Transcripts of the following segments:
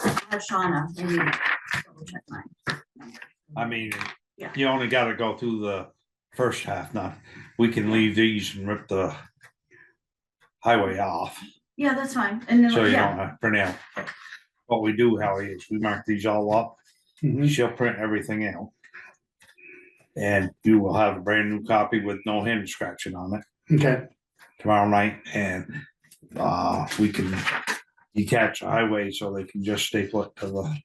have Shauna. Let me double check mine. I mean, Yeah. you only gotta go through the first half now. We can leave these and rip the highway off, Yeah, that's fine. And so then, you yeah, don't have to print out. What we do, Howie, is we mark these all up. Mm-hmm. She'll print everything out. And you will have a brand new copy with no hand scratching on it Okay, tomorrow night and uh, we can detach the highway so they can just staple it to the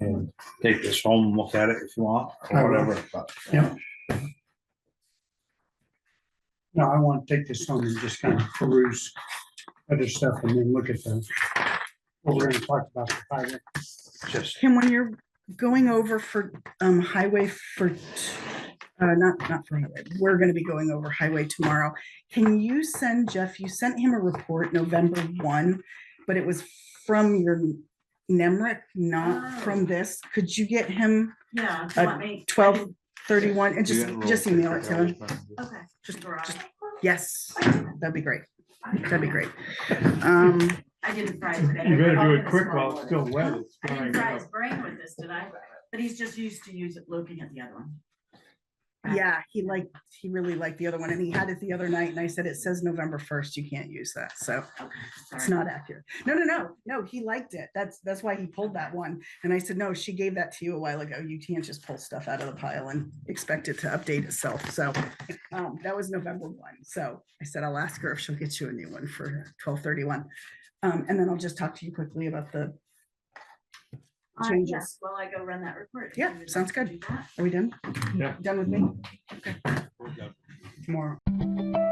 and take this home, and look at it if you want, I or will. whatever, but. Yeah. now I want to take this home and just kind of peruse other stuff and then look at the, what we're gonna talk about. the highway. Just, Kim, when you're going over for um highway for, t- uh, not, not for highway, we're gonna be going over highway tomorrow. Can you send Jeff, you sent him a report November one, but it was from your NEMRIC, not from this. Could you get him yeah. if you Uh, want me- I twelve can- thirty-one and just, just email it to him? Okay. Just- Garage. just- Yes, that'd be great. That'd be great. Um, I didn't fry it today. You better do I'll it get a quick small while it's order. still wet. Huh? It's I drying didn't fry up. his brain with this, did I? But he's just used to use it, looking at the other one. yeah, he liked, he really liked the other one and he had it the other night and I said, it says November first, you can't use that, so. It's Sorry. not accurate. No, no, no, no, he liked it. That's, that's why he pulled that one. And I said, no, she gave that to you a while ago. You can't just pull stuff out of the pile and expect it to update itself. So um, that was November one. So I said, I'll ask her if she'll get you a new one for twelve thirty-one. Um, and then I'll just talk to you quickly about the, Uh, changes. yes, Well, I go run that report. Yeah, Would you sounds like good. to do that? are we done? Yeah. Done with me? We're done. Tomorrow.